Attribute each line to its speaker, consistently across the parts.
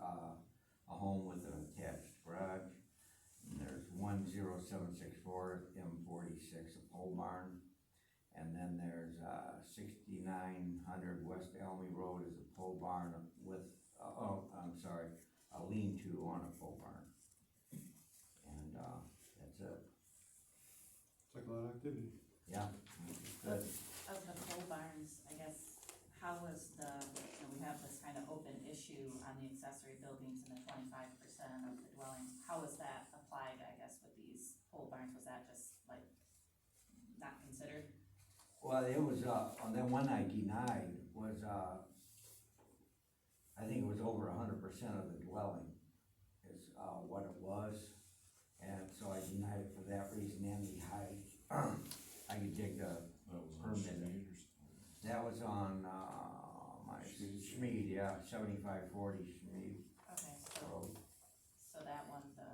Speaker 1: uh, seven six four M forty-six a pole barn. And then there's, uh, sixty-nine hundred West Elmy Road is a pole barn with, uh, oh, I'm sorry, a lean-to on a pole barn. And, uh, that's it,
Speaker 2: It's like a lot of activity.
Speaker 1: yeah, good.
Speaker 3: Of the pole barns, I guess, how was the, you know, we have this kind of open issue on the accessory buildings and the twenty-five percent of the dwellings. How was that applied, I guess, with these pole barns? Was that just like not considered?
Speaker 1: Well, it was, uh, on that one I denied was, uh, I think it was over a hundred percent of the dwelling is, uh, what it was. And so I denied it for that reason and the height. I could dig the,
Speaker 4: That was on
Speaker 1: Permit.
Speaker 4: Schmidt or something.
Speaker 1: that was on, uh, my Schmid, yeah, seventy-five forty Schmid
Speaker 3: Okay, so,
Speaker 1: Road.
Speaker 3: so that one, the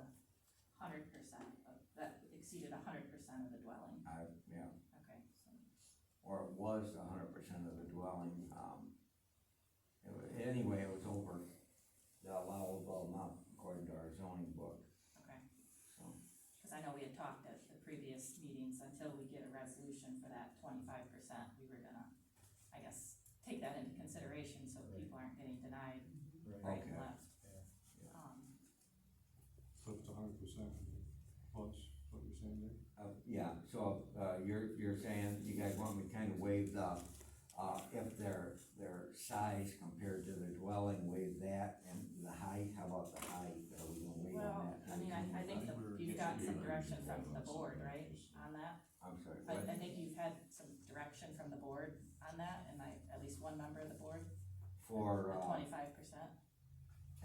Speaker 3: hundred percent of, that exceeded a hundred percent of the dwelling,
Speaker 1: I, yeah,
Speaker 3: okay, so.
Speaker 1: or it was a hundred percent of the dwelling, um. It wa- anyway, it was over the allowable amount according to our zoning book,
Speaker 3: Okay,
Speaker 1: so.
Speaker 3: because I know we had talked at the previous meetings, until we get a resolution for that twenty-five percent, we were gonna, I guess, take that into consideration, so
Speaker 5: Right.
Speaker 3: people aren't getting denied
Speaker 5: Right,
Speaker 3: right and
Speaker 1: Okay.
Speaker 3: left.
Speaker 5: Yeah.
Speaker 1: Yeah.
Speaker 3: Um,
Speaker 2: So it's a hundred percent plus what you're saying there.
Speaker 1: Uh, yeah, so, uh, you're, you're saying, you guys want me to kind of waive the, uh, if their, their size compared to the dwelling, waive that, and the height, how about the height, are we gonna waive on
Speaker 3: well,
Speaker 1: that?
Speaker 3: I mean, I, I think that you've got some direction from the board, right, on that?
Speaker 1: I'm sorry,
Speaker 3: I,
Speaker 1: what?
Speaker 3: I think you've had some direction from the board on that, and I, at least one member of the board,
Speaker 1: for,
Speaker 3: the
Speaker 1: uh,
Speaker 3: twenty-five percent.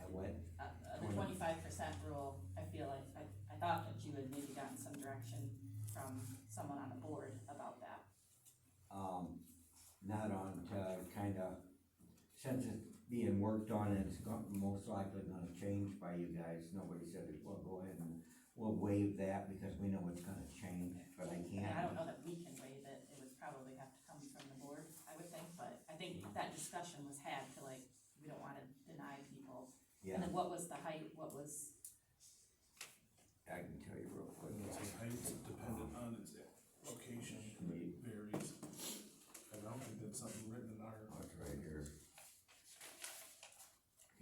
Speaker 1: at what,
Speaker 3: uh, uh, the twenty-five percent rule, I feel like, I, I thought that you had maybe gotten some direction from someone on the board about that.
Speaker 1: um, not on, uh, kind of, since it's being worked on, and it's gon- most likely gonna change by you guys, nobody said it, well, go ahead and, we'll waive that, because we know it's gonna change, but I
Speaker 3: I mean, I
Speaker 1: can't,
Speaker 3: don't know that we can waive it, it would probably have to come from the board, I would think, but I think
Speaker 1: Mm-hmm.
Speaker 3: that discussion was had to like, we don't wanna deny people.
Speaker 1: yeah.
Speaker 3: And then what was the height, what was,
Speaker 1: I can tell you real quick.
Speaker 4: Height's dependent on its location,
Speaker 1: Right,
Speaker 4: varies. I don't think that's something written in our.
Speaker 1: oh, It's right here.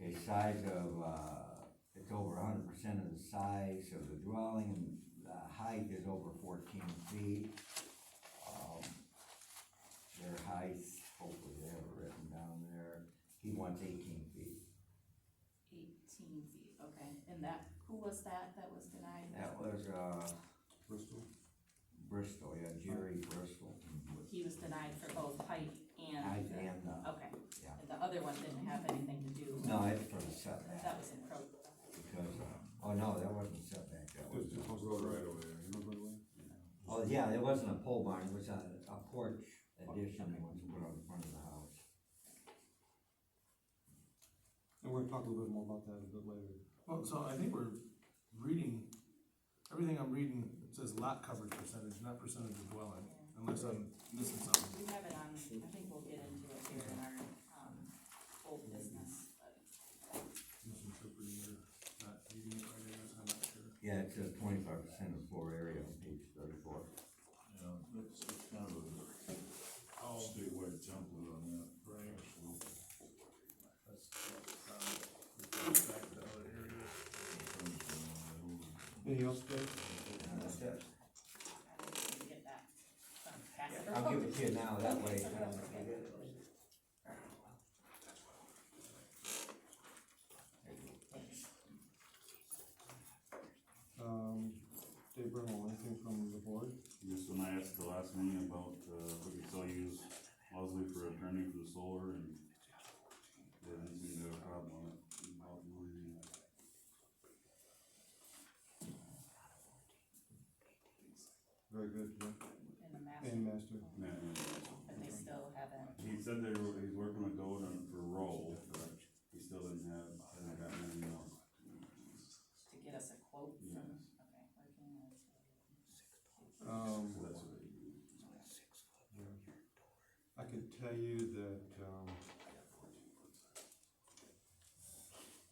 Speaker 1: Okay, size of, uh, it's over hundred percent of the size of the dwelling, and the height is over fourteen feet. Um, Their height, hopefully they have it written down there, he wants eighteen feet.
Speaker 3: eighteen feet, okay, and that, who was that that was denied?
Speaker 1: That was, uh,
Speaker 2: Bristol,
Speaker 1: Bristol, yeah, Jerry Bristol.
Speaker 3: He was denied for both height and.
Speaker 1: Height and, uh,
Speaker 3: Okay.
Speaker 1: Yeah.
Speaker 3: And the other one didn't have anything to do.
Speaker 1: no, it's for the
Speaker 3: That
Speaker 1: setback,
Speaker 3: was in pro,
Speaker 1: because, uh, oh no, that wasn't setback, that
Speaker 3: Uh,
Speaker 1: was.
Speaker 2: just, just close the right away, you know, by the way?
Speaker 1: Oh, yeah, it wasn't a pole barn, it was a, a porch addition they wanted to put on the front of the house.
Speaker 2: And we're gonna talk a little bit more about that a bit later.
Speaker 4: Well, so I think we're reading, everything I'm reading says lot coverage percentage, not percentage of dwelling, unless I'm missing something.
Speaker 3: we have it on, I think we'll get into it here in our, um, old business, but
Speaker 4: Misinterpreting or not reading it right, I guess, I'm not sure.
Speaker 1: Yeah, it says twenty-five percent of floor area on page thirty-four.
Speaker 6: Yeah, that's kind of a
Speaker 2: Oh.
Speaker 6: statewide template on that.
Speaker 4: Right.
Speaker 6: Actually,
Speaker 4: That's, that's, um, back to other areas.
Speaker 6: depends on the old-
Speaker 2: Anything else, Dave?
Speaker 1: And that's it.
Speaker 3: I don't think we get that from Casper.
Speaker 1: I'll give it to you now, that way. I don't forget it.
Speaker 2: Um, Dave Bernal, anything from the board?
Speaker 7: Just when I asked the last meeting about, uh, if we could still use Leslie for attorney for the solar and they didn't seem to have a problem with it. about mine.
Speaker 2: Very good, yeah.
Speaker 3: In the
Speaker 2: And
Speaker 3: master,
Speaker 2: master.
Speaker 7: And
Speaker 3: but they still haven't,
Speaker 7: he said they were, he's working with Gold on for roll, but he still didn't have, hasn't gotten any more.
Speaker 3: to get us a quote
Speaker 7: Yes,
Speaker 3: from, okay, working on it.
Speaker 2: Um,
Speaker 7: so that's what he.
Speaker 2: I could tell you um,